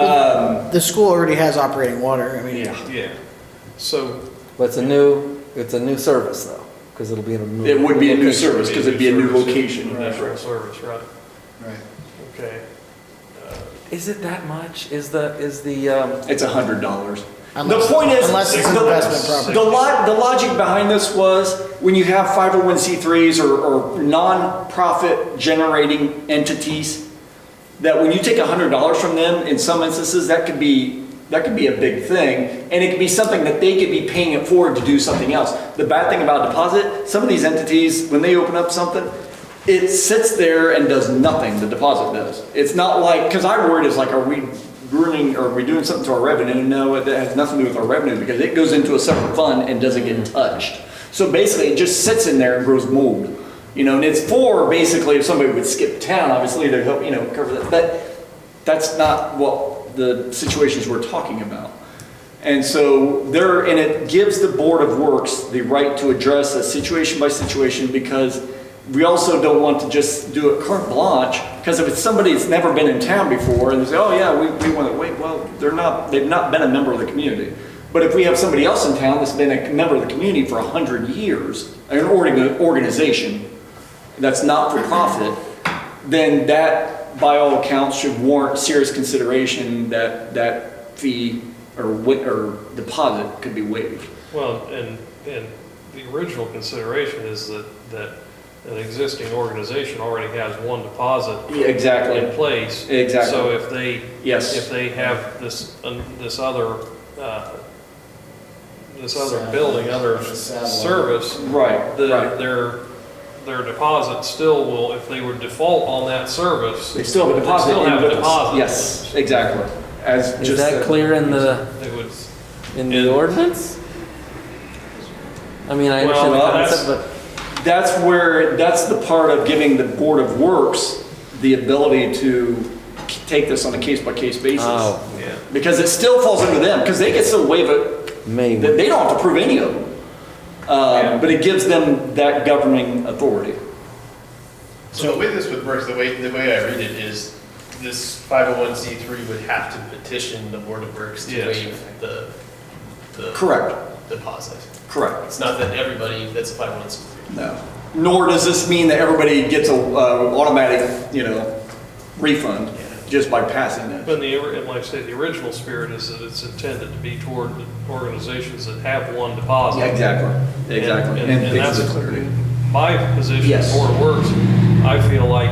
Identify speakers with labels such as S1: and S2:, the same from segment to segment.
S1: Um,
S2: The school already has operating water, I mean,
S1: yeah,
S3: Yeah, so
S4: But it's a new, it's a new service though, because it'll be in a new.
S1: it would be a new
S4: location.
S1: service because it'd be a new
S3: service,
S1: location.
S3: a National service, right,
S5: Right.
S3: okay. Uh,
S4: Is it that much? Is the, is the, um,
S1: It's a hundred dollars.
S2: unless,
S1: the point is,
S2: unless it's an
S1: the-
S2: investment property.
S1: The lo, the logic behind this was when you have 501c3s or, or non-profit generating entities, that when you take $100 from them, in some instances, that could be, that could be a big thing. And it could be something that they could be paying it forward to do something else. The bad thing about deposit, some of these entities, when they open up something, it sits there and does nothing, the deposit does. It's not like, because our word is like, are we ruining, are we doing something to our revenue? No, that has nothing to do with our revenue because it goes into a separate fund and doesn't get touched. So basically, it just sits in there and grows mold. You know, and it's for basically if somebody would skip town, obviously to help, you know, cover that. But that's not what the situations we're talking about. And so there, and it gives the Board of Works the right to address a situation by situation because we also don't want to just do a carte blanche. Because if it's somebody that's never been in town before and they say, oh yeah, we, we want to, wait, well, they're not, they've not been a member of the community. But if we have somebody else in town that's been a member of the community for 100 years, an orga- organization, that's not for profit, then that, by all accounts, should warrant serious consideration that that fee or wi- or deposit could be waived.
S3: Well, and, and the original consideration is that, that an existing organization already has one deposit in
S1: Exactly.
S3: place.
S1: Exactly.
S3: So if they, if
S1: Yes.
S3: they have this, um, this other, uh, this other building, other service,
S1: Right,
S3: the,
S1: right.
S3: their, their deposit still will, if they would default on that service.
S1: They still have a
S3: they'd
S1: deposit.
S3: Still
S1: in
S3: have a
S1: with us.
S3: deposit.
S1: Yes, exactly. As
S4: is
S1: just
S4: that
S1: a-
S4: clear in the,
S3: They would,
S4: in
S3: In-
S4: the ordinance? I mean, I
S3: Well, uh,
S4: understand the
S3: that's-
S4: concept, but
S1: That's where, that's the part of giving the Board of Works the ability to k- take this on a case-by-case basis.
S4: Oh.
S3: yeah.
S1: Because it still falls under them, because they can still waive it They,
S4: maybe.
S1: they don't have to prove any of them. Uh, But it gives them that governing authority.
S6: So the way this would work, the way, the way I read it is this 501c3 would have to petition the Board of Works to
S3: Yes.
S6: waive the, the.
S1: Correct.
S6: Deposit.
S1: Correct.
S6: It's not that everybody that's a 501c3.
S1: No. Nor does this mean that everybody gets a uh, automatic, you know, refund just by passing it.
S3: But the, and like I said, the original spirit is that it's intended to be toward the organizations that have one deposit.
S1: Yeah, Exactly,
S3: And-
S1: exactly.
S3: And and
S1: fix
S3: that's
S1: the clarity.
S3: my position,
S1: Yes.
S3: as Board of Works, I feel like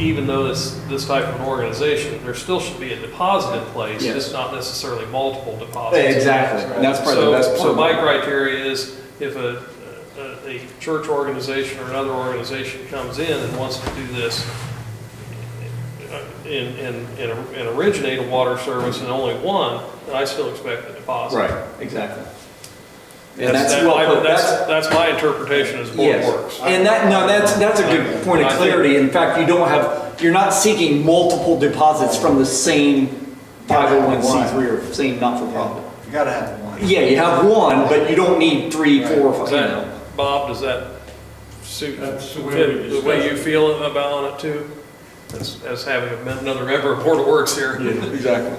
S3: even though this, this type of an organization, there still should be a deposit in place,
S1: Yes.
S3: just not necessarily multiple deposits.
S1: Exactly. And that's part of, that's
S3: So, so my
S1: part of.
S3: criteria is if a, a, a church organization or another organization comes in and wants to do this uh, and, and, and and originate a water service and only one, then I still expect the deposit.
S1: Right, exactly. And
S3: That's,
S1: that's
S3: that-
S1: well
S3: I-
S1: put, that's,
S3: that's, that's my interpretation as Board
S1: Yes,
S3: Works.
S1: And that, no, that's, that's a good point of clarity. In fact, you don't have, you're not seeking multiple deposits from the same 501c3 or same not-for-profit.
S5: You gotta have one.
S1: Yeah, you have one, but you don't need three, four, or
S3: Does
S1: five, you know.
S3: that, Bob, does that suit,
S7: That's the way
S3: fit
S7: we
S3: the way
S7: discussed
S3: you feel about it too? As, as having another member of Board of Works here.
S1: Exactly.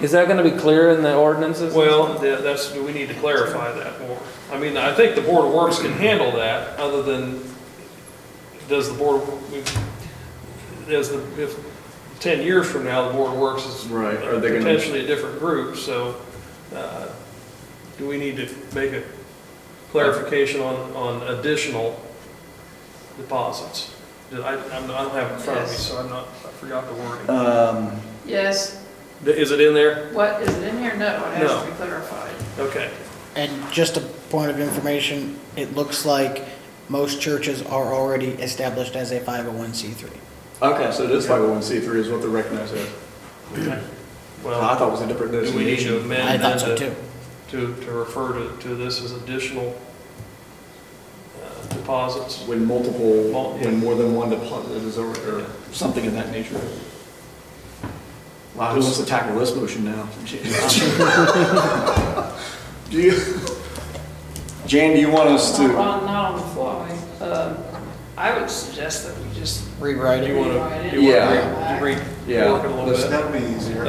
S4: Is that gonna be clear in the ordinances?
S3: Well, yeah, that's, we need to clarify that more. I mean, I think the Board of Works can handle that, other than, does the Board, of- we- does the, if, ten years from now, the Board of Works is
S1: Right, are they gonna-
S3: potentially a different group, so, uh, do we need to make a clarification on, on additional deposits? Did I, I'm- I don't have it in front of me,
S8: Yes.
S3: so I'm not, I forgot the wording.
S1: Um,
S8: Yes,
S3: Is it in there?
S8: what, is it in here? No, it has
S3: No.
S8: to be clarified.
S3: Okay.
S2: And just a point of information, it looks like most churches are already established as a 501c3.
S1: okay, so oh it is 501c3 is what they're recognized as.
S3: Well.
S1: I thought it was a different
S3: Do we need to
S1: designation.
S2: I
S3: amend
S2: thought
S3: that
S2: so too.
S3: to, to to refer to, to this as additional uh, deposits?
S1: When multiple,
S3: Mul-
S1: when more than one deposit is over, or something of that nature. Wow, who wants to tackle this motion now? Do you? Jan, do you want us
S8: Not
S1: to?
S8: on, Uh, not on the fly. Um, I would suggest that we just
S2: Rewrite it.
S3: Do you want to, do you
S1: Yeah.
S3: want to re,
S1: Yeah.
S3: work it a little bit?
S5: That'll be easier.